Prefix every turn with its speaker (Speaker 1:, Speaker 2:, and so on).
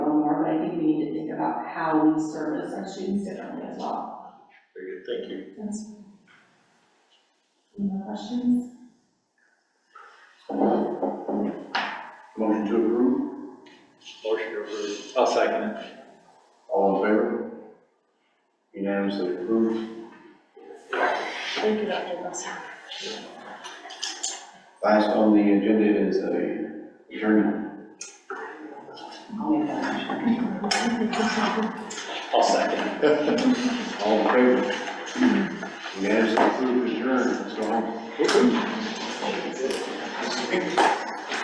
Speaker 1: think about how we service our students differently as well.
Speaker 2: Very good, thank you.
Speaker 1: That's- Any more questions?
Speaker 3: Motion to approve,
Speaker 2: Motion approved. I'll second it.
Speaker 3: all in favor? Unanimously approved.
Speaker 4: Thank you, Dr. Glassman.
Speaker 3: Last on the agenda is a adjournment.
Speaker 1: I'll make that motion.
Speaker 2: I'll second.
Speaker 3: All in favor? Unanimously approved, adjourned, so.